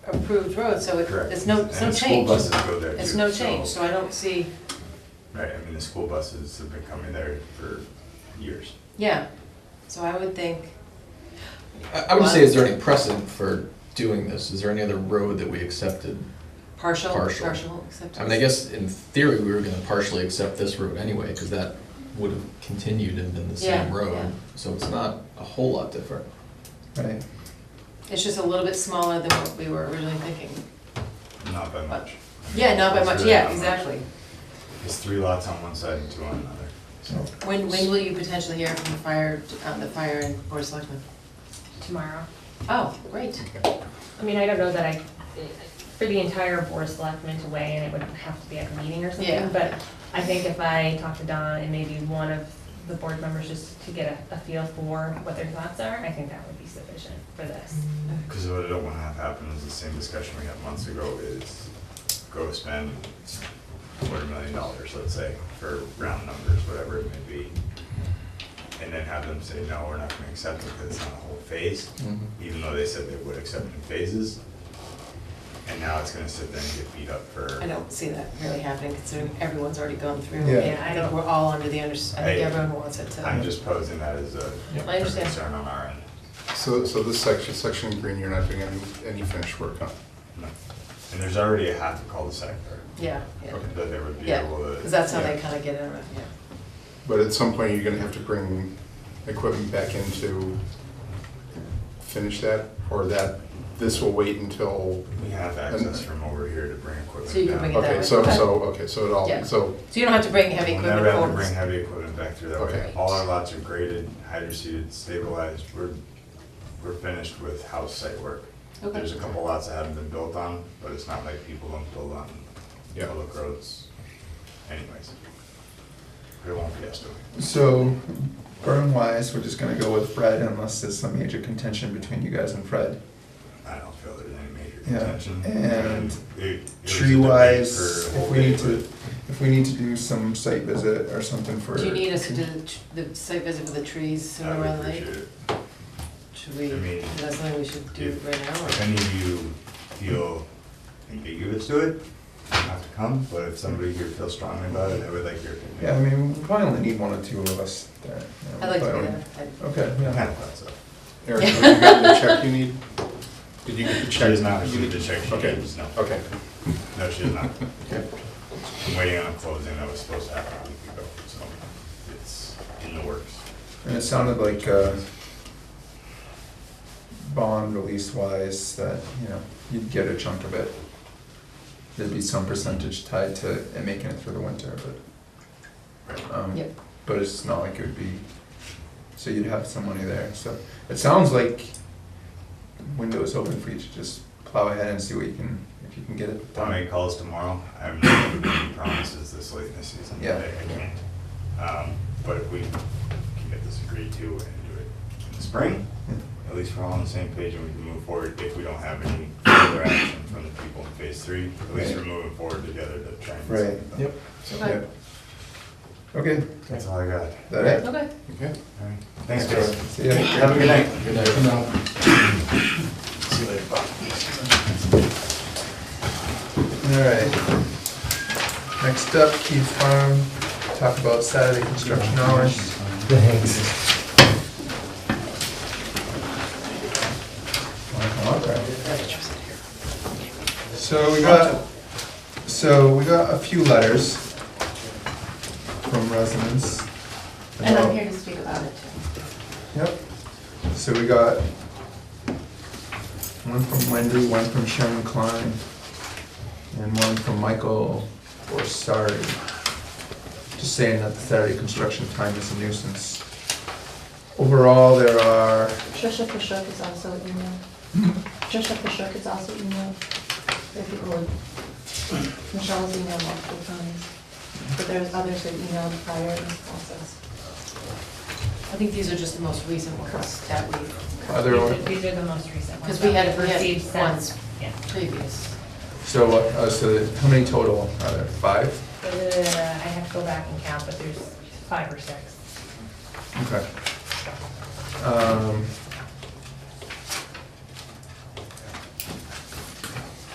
improved road, so it- Correct. it's no, And it's no the school change. buses go there It's too, no so- change, so I don't see, Right, I mean, the school buses have been coming there for years. yeah, so I would think, I I would say, is there any precedent for doing this? Is there any other road that we accepted? partial, Partial. partial acceptance. I mean, I guess in theory, we were gonna partially accept this road anyway, because that would have continued and been the same Yeah, yeah. road. So it's not a whole lot different. Right. It's just a little bit smaller than what we were originally thinking. Not by much. I mean, Yeah, not by it's much, really yeah, not much. exactly. There's three lots on one side and two on another, so. When, when will you potentially hear from the fire, uh, the fire and board of selectmen? tomorrow. Oh, great. I mean, I don't know that I, for the entire board of selectmen to weigh in, it would have to be at a meeting or Yeah. something. But I think if I talk to Don and maybe one of the board members just to get a, a feel for what their thoughts are, I think that would be sufficient for this. Because what I don't want to have happen is the same discussion we had months ago is go spend quarter million dollars, let's say, for round numbers, whatever it may be. And then have them say, no, we're not going to accept it because it's not a whole phase, even though they said they would accept in phases. And now it's going to sit there and get beat up for. I don't see that really happening considering everyone's already gone through. Yeah. and I think we're all under the under, I think I- everyone wants it to. I'm just posing that as a Yeah. I understand. concern on our end. So, so this section, section in green, you're not doing any, any finished work on? No. And there's already a half a cul-de-sac there. Yeah, yeah, That they would be yeah, able to. because that's how they yeah. kind of get in, yeah. But at some point, you're gonna have to bring equipment back in to finish that? Or that, this will wait until, We have access from over here to bring equipment So you can down. bring it down. okay, so, so, okay, so it Yeah. all, so, So you don't have to bring heavy We'll equipment never have to forward. bring heavy equipment back through that way. Okay. All our lots are graded, hydroseeded, stabilized. We're, we're finished with house site work. Okay. There's a couple lots that haven't been built on, but it's not like people don't build on Yeah. public roads anyways. It won't be us doing it. So, burn wise, we're just gonna go with Fred unless there's some major contention between you guys and Fred. I don't feel there's any major Yeah, contention. and it- it was a Tree debate wise, for a if whole we need day, to, but- if we need to do some site visit or something for. Do you need us to do the tr- the site visit for the trees I sooner would or appreciate later? it. Should we, I mean, is that something we should do if- right now? If or- any of you feel ambiguous to it, you don't have to come, but if somebody here feels strongly about it, I would like your opinion. Yeah, I mean, we probably only need one or two of us there. you know, I'd like to probably be only- there. I'd- Okay, I yeah. kinda thought so. Eric, have you got the check you need? Did you get the check? She is not, You she need- did check, she Okay, was, no. okay. No, she is not. Okay. I'm waiting on a closing that was supposed to happen a week ago, so it's in the works. And it sounded like, uh, bond release wise, that, you know, you'd get a chunk of it. There'd be some percentage tied to it making it through the winter, but, um, Yep. but it's not like it would be, so you'd have some money there, so. It sounds like window's open for you to just plow ahead and see what you can, if you can get it I'll done. make calls tomorrow. I'm not going to make any promises this late in the season. Yeah. I I can't. Um, But if we can get this agreed to and do it in the spring, Yeah. at least we're all on the same page and we can move forward if we don't have any further action from the people in phase three. At least we're moving forward together to try and. Right, Yep. Okay. Yeah. Okay, That's all I got. All that it? Okay. Okay. right. Thanks, guys. See ya. Have a good night. Good night. See you later. Bye. Alright. Next up, Keith Farm, talk about Saturday construction hours. Thanks. So we got, so we got a few letters from residents. And about- I'm here to speak about it too. Yep. So we got one from Wendy, one from Sharon Klein, and one from Michael Borsari. Just saying that the Saturday construction time is a nuisance. Overall, there are, Trisha Pashuk is also emailed. Trisha Pashuk is also emailed. If you would. Michelle's emailed multiple times. But there's others that emailed prior in this process. I think these are just the most recent ones that we, are there, These are the most recent ones. 'Cause we had- that we've we had received since- ones. Yeah. previous. so, what- uh, so that- how many total are there? Five? Uh, I have to go back and count, but there's five or six. Okay. Um,